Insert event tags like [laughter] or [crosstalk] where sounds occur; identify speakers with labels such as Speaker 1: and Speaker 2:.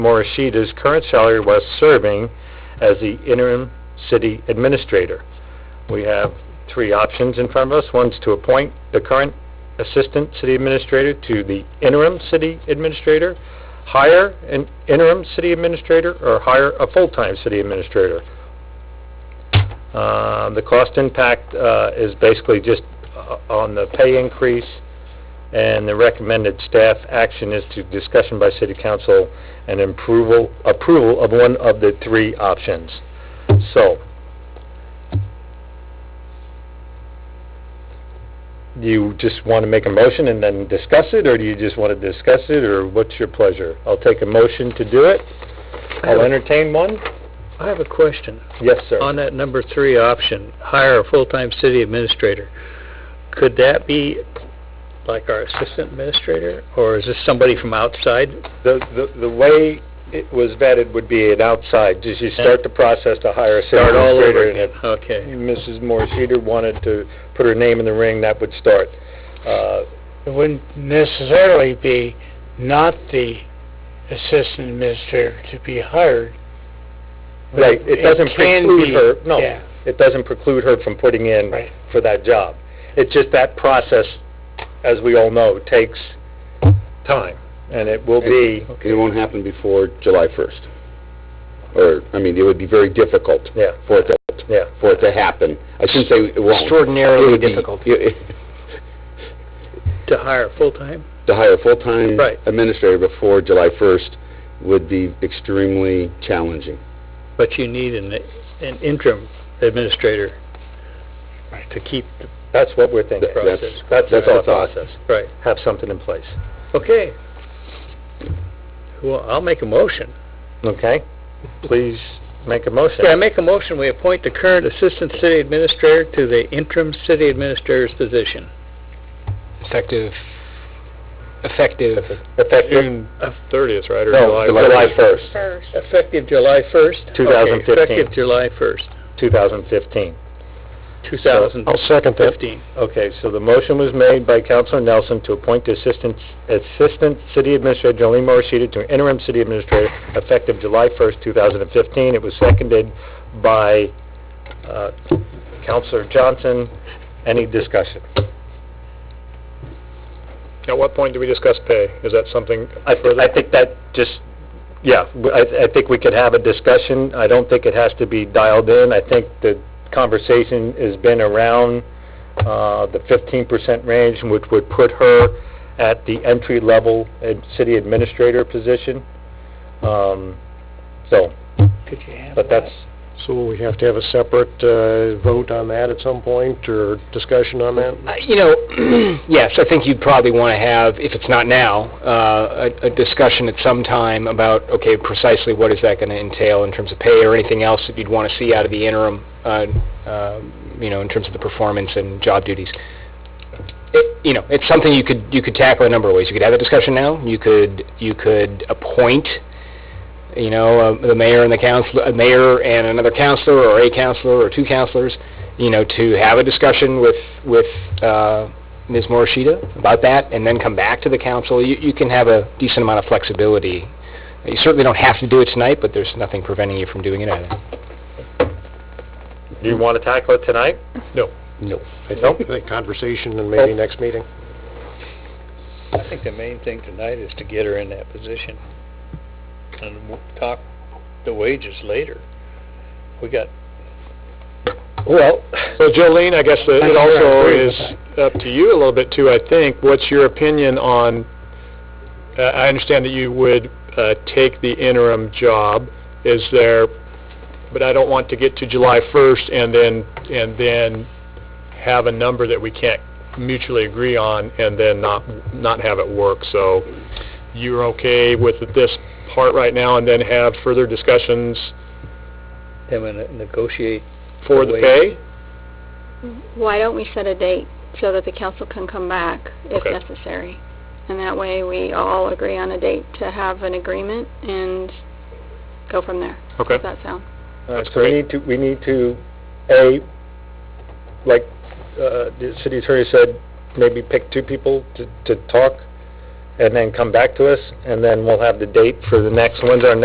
Speaker 1: Morishita's current salary was serving as the interim city administrator. We have three options in front of us. One's to appoint the current assistant city administrator to the interim city administrator, hire an interim city administrator, or hire a full-time city administrator. Uh, The cost impact uh, is basically just uh, on the pay increase, and the recommended staff action is to discussion by city council and approval, approval of one of the three options. So, do you just want to make a motion and then discuss it, or do you just want to discuss it, or what's your pleasure? I'll take a motion to do it.
Speaker 2: I have
Speaker 1: I'll
Speaker 2: a-
Speaker 1: entertain one.
Speaker 2: I have a question.
Speaker 1: Yes, sir.
Speaker 2: On that number three option, hire a full-time city administrator, could that be like our assistant administrator, or is this somebody from outside?
Speaker 1: The, the, the way it was vetted would be an outside, just you start the process to hire a city
Speaker 2: Start all over
Speaker 1: administrator. and
Speaker 2: again?
Speaker 1: if
Speaker 2: Okay.
Speaker 1: Mrs. Morishida wanted to put her name in the ring, that would start. Uh,
Speaker 3: It wouldn't necessarily be not the assistant administrator to be hired. but
Speaker 1: Right, it doesn't
Speaker 3: can
Speaker 1: preclude
Speaker 3: be-
Speaker 1: her,
Speaker 2: Oh.
Speaker 1: no,
Speaker 3: Yeah,
Speaker 1: it doesn't preclude her from putting in
Speaker 3: right.
Speaker 1: for that job. It's just that process, as we all know, takes time, and it will be,
Speaker 4: It won't happen before July first. Or, I mean, it would be very difficult
Speaker 1: yeah,
Speaker 4: for it to,
Speaker 1: yeah.
Speaker 4: for it to happen. I shouldn't say it won't. It
Speaker 1: Extraordinarily
Speaker 4: would be- it-
Speaker 2: To hire full-time?
Speaker 4: [laughs] To hire a full-time
Speaker 2: Right.
Speaker 4: administrator before July first would be extremely challenging.
Speaker 2: But you need an an interim administrator to keep, the
Speaker 1: That's what we're thinking.
Speaker 4: Th- that's-
Speaker 2: Process.
Speaker 1: That's
Speaker 4: that's
Speaker 1: our
Speaker 4: our thought.
Speaker 1: process,
Speaker 2: right,
Speaker 1: have something in place,
Speaker 2: okay. Well, I'll make a motion.
Speaker 1: okay? Please make a motion.
Speaker 2: Yeah, I make a motion, we appoint the current Assistant City Administrator to the interim City Administrator's position.
Speaker 5: Effective, effective,
Speaker 1: Effective,
Speaker 2: Thirtieth, right,
Speaker 1: no, July first,
Speaker 6: first.
Speaker 2: Effective July first?
Speaker 1: 2015.
Speaker 2: Effective July first,
Speaker 1: two thousand fifteen.
Speaker 2: two thousand
Speaker 1: second
Speaker 2: fifteen.
Speaker 1: Okay, so the motion was made by Councilor Nelson to appoint the Assistant, Assistant City Administrator Jolene Morishita to interim city administrator effective July first, two thousand and fifteen. It was seconded by, uh, Councilor Johnson. Any discussion?
Speaker 7: At what point do we discuss pay? Is that something
Speaker 1: I, th- I think that just, yeah, w- I, I think we could have a discussion. I don't think it has to be dialed in. I think the conversation has been around, uh, the fifteen percent range, which would put her at the entry-level ad- city administrator position. Um, so,
Speaker 3: Could you handle
Speaker 1: but that's,
Speaker 7: So will we have to have a separate uh, vote on that at some point, or discussion on that?
Speaker 5: Uh, you know, [clears throat] yes, I think you'd probably want to have, if it's not now, uh, a, a discussion at some time about, okay, precisely what is that going to entail in terms of pay or anything else that you'd want to see out of the interim, uh, uh, you know, in terms of the performance and job duties. It, you know, it's something you could, you could tackle a number of ways. You could have a discussion now, you could, you could appoint, you know, uh, the mayor and the council, a mayor and another counselor, or a counselor, or two counselors, you know, to have a discussion with, with uh, Ms. Morishita about that, and then come back to the council. You, you can have a decent amount of flexibility. You certainly don't have to do it tonight, but there's nothing preventing you from doing it either.
Speaker 1: do you want to tackle it tonight?
Speaker 5: No.
Speaker 7: I think the conversation and maybe next meeting.
Speaker 2: I think the main thing tonight is to get her in that position. And we'll talk the wages later. We got,
Speaker 1: Well,
Speaker 7: So Jolene, I guess uh,
Speaker 3: I
Speaker 7: it
Speaker 3: think
Speaker 7: also
Speaker 3: we're
Speaker 7: is up to you a little bit too, I think. What's your opinion on, uh, I understand that you would uh, take the interim job. Is there, but I don't want to get to July 1st and then, and then have a number that we can't mutually agree on and then not, not have it work. So you're okay with this part right now and then have further discussions
Speaker 2: them to negotiate.
Speaker 7: for the
Speaker 2: Wait.
Speaker 7: pay?
Speaker 6: Why don't we set a date so that the council can come back if
Speaker 7: Okay.
Speaker 6: necessary? And that way, we all agree on a date to have an agreement and go from there.
Speaker 7: Okay.
Speaker 6: Does that sound?
Speaker 1: All right,
Speaker 7: That's
Speaker 1: Uh, so we
Speaker 7: great.
Speaker 1: need to, we need to, A, like, uh, the city attorney said, maybe pick two people to, to talk and then come back to us, and then we'll have the date for the next, when's our next